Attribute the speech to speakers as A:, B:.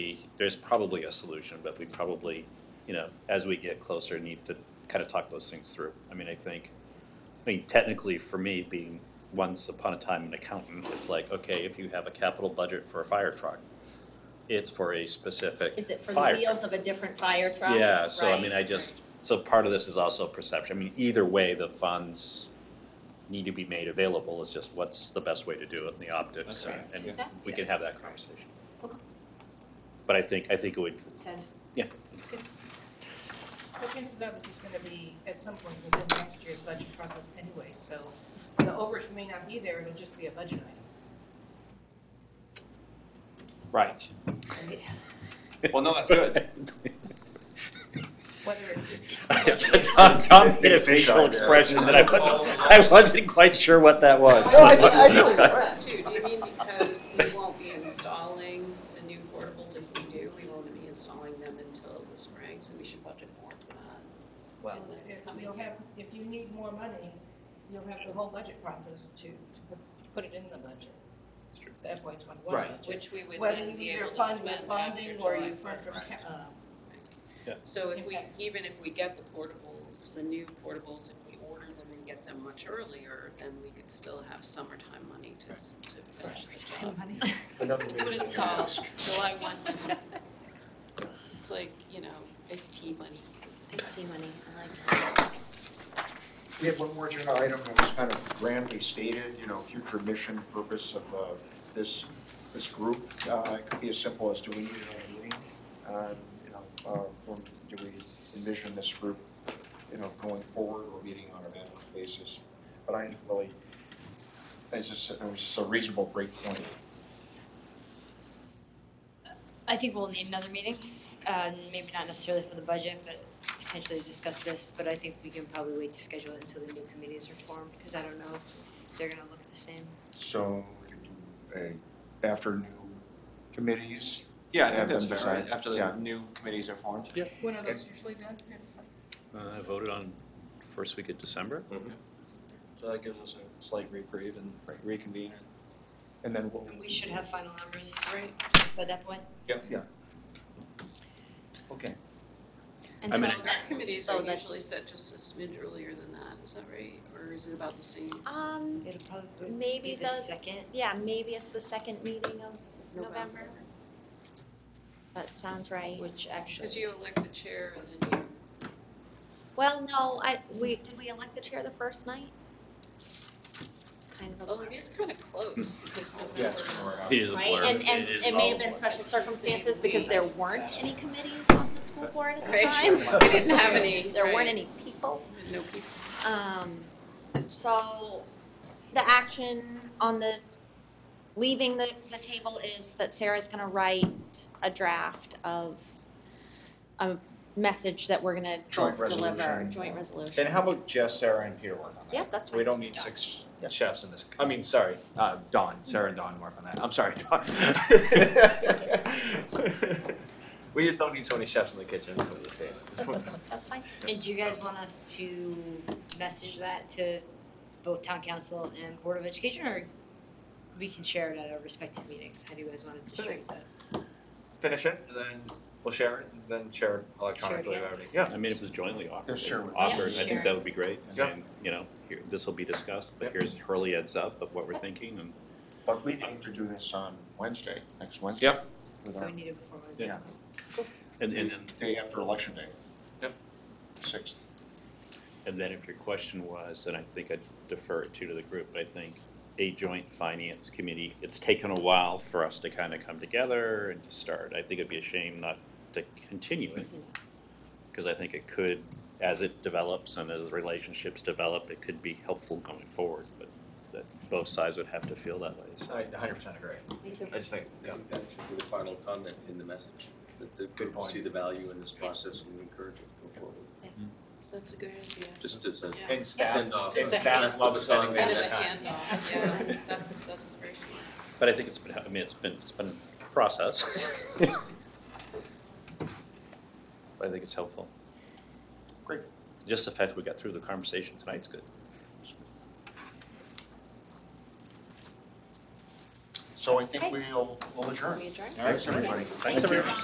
A: there's probably a solution, but we probably, you know, as we get closer, need to kind of talk those things through. I mean, I think, I mean, technically for me, being once upon a time an accountant, it's like, okay, if you have a capital budget for a fire truck, it's for a specific
B: Is it for the
A: fire truck.
B: wheels of a different fire truck?
A: Yeah, so I mean,
B: Right,
A: I just, so part of this is also perception. I mean, either way, the funds need to be made available, it's just what's the best way to do it in the optics,
C: Okay.
A: and- and
B: Yeah.
A: we can have that conversation.
B: Okay.
A: But I think, I think it would,
D: Sense.
A: yeah,
E: Well, chances are this is gonna be at some point within next year's budget process anyway, so the overage may not be there, it'll just be a budget item.
C: Right.
E: And
C: Well, no, that's good.
E: Whether it's.
A: Tom, Tom made a facial expression that I wasn't, I wasn't quite sure what that was.
F: No, I think, I think it's
D: Too, do you mean because we won't be installing the new portables? If we do, we won't be installing them until the spring, so we should budget more for that.
E: Well, if you'll have, if you need more money, you'll have the whole budget process to, to put- put it in the budget. The FY twenty-one
C: Right.
E: budget.
D: Which we would
E: Whether
D: then
E: you
D: be
E: either
D: able to
E: fund with
D: spend after
E: bonding or
D: July
E: you fund from,
D: first.
E: ca- uh,
D: So if we,
E: Okay.
D: even if we get the portables, the new portables, if we order them and get them much earlier, then we could still have summertime money to, to finish the job.
F: another
D: It's what
F: meeting.
D: it's called, July one money. It's like, you know, iced tea money.
G: Iced tea money, I like that.
F: We had one more agenda item that was kind of grandly stated, you know, future mission, purpose of uh, this, this group. Uh, It could be as simple as, do we need another meeting? Uh, You know, uh, or do we envision this group, you know, going forward or meeting on an annual basis? But I didn't really, it's just, it was just a reasonable break point.
G: I think we'll need another meeting, uh, maybe not necessarily for the budget, but potentially to discuss this, but I think we can probably wait to schedule it until the new committees are formed, because I don't know if they're gonna look the same.
F: So we could do a, after new committees,
C: Yeah, I think
F: Have
C: that's
F: them
C: fair, right?
F: decide.
C: After the
F: Yeah.
C: new committees are formed.
E: when are those usually done?
A: Uh, I voted on first week of December.
C: So that gives us a slight reprieve and reconvene.
F: and then we'll,
G: We should have final numbers
D: Right.
G: by that point.
F: okay.
G: And
A: I mean, I-
G: so that's-
D: Our committees
G: so
D: are
G: that's-
D: usually set just a smidge earlier than that, is that right? Or is it about the same?
H: Um,
G: It'll probably be
H: maybe
G: the
H: the,
G: second.
H: yeah, maybe it's the second meeting of November. That sounds right.
G: Which
D: Because
G: actually,
D: you elect the chair and then you.
H: Well, no, I, we, did we elect the chair the first night? It's kind of a.
D: Well, oh, it is kind of close because
F: Yeah, it's
D: November.
F: more
C: uh,
F: out.
A: It is a blur.
H: Right, and, and
A: is
H: it may
A: all
H: have been
A: a blur.
H: special
D: It's the same
H: circumstances because
D: week.
H: there weren't any committees on the school board at the
D: Right.
H: time.
D: We didn't have any.
H: There
D: right.
H: weren't any people.
D: No people.
H: Um, so the action on the, leaving the, the table is that Sarah's gonna write a draft of a message that we're gonna
F: Joint
H: both deliver,
F: resolution.
H: joint resolution.
C: And how about just Sarah and Peter work on that?
H: Yeah, that's fine.
C: We don't need six chefs in this, I mean, sorry, uh, Dawn, Sarah and Dawn work on that. I'm sorry, Dawn. We just don't need so many chefs in the kitchen, that's what we're saying.
H: That's fine.
G: and do you guys want us to message that to both town council and board of education, or we can share it at our respective meetings? How do you guys want to distribute that?
C: Finish it, and then we'll share it, and then share it electronically,
G: again.
C: already. yeah.
A: I mean, if it was jointly offered,
F: Just share with-
A: offered,
G: Yeah,
A: I think
G: sure.
A: that would be great.
C: Yeah.
A: And, you know, here, this will be discussed, but
C: Yep.
A: here's Hurley heads up of what we're thinking and
F: But we aim to do this on Wednesday, next Wednesday.
C: Yep.
F: With
G: So
F: our-
G: we need it before Wednesday.
F: Yeah.
A: And, and then,
F: Day after election day.
C: Yep.
F: Sixth.
A: and then if your question was, and I think I defer it to to the group, but I think a joint finance committee, it's taken a while for us to kind of come together and to start. I think it'd be a shame not to continue it. Because I think it could, as it develops and as the relationships develop, it could be helpful going forward, but that both sides would have to feel that way, so.
C: I hundred percent agree.
G: Me too.
C: I just think,
I: I think that should be the final comment in the message, that the
C: Good
I: people
C: point.
I: see the value in this process and encourage it to go forward.
D: That's a good idea.
I: Just as a
D: Yeah.
C: and staff,
I: send off.
D: Just
C: and
D: a
C: staff love spending
D: Kind of a
C: that time.
D: handoff, yeah. That's, that's very smart.
A: But I think it's been, I mean, it's been, it's been a process. But I think it's helpful.
F: Great.
A: Just the fact we got through the conversation tonight's good.
F: So I think
H: Okay.
F: we'll, we'll adjourn.
H: We adjourn?
F: Thanks, everybody.
A: Thanks, everyone.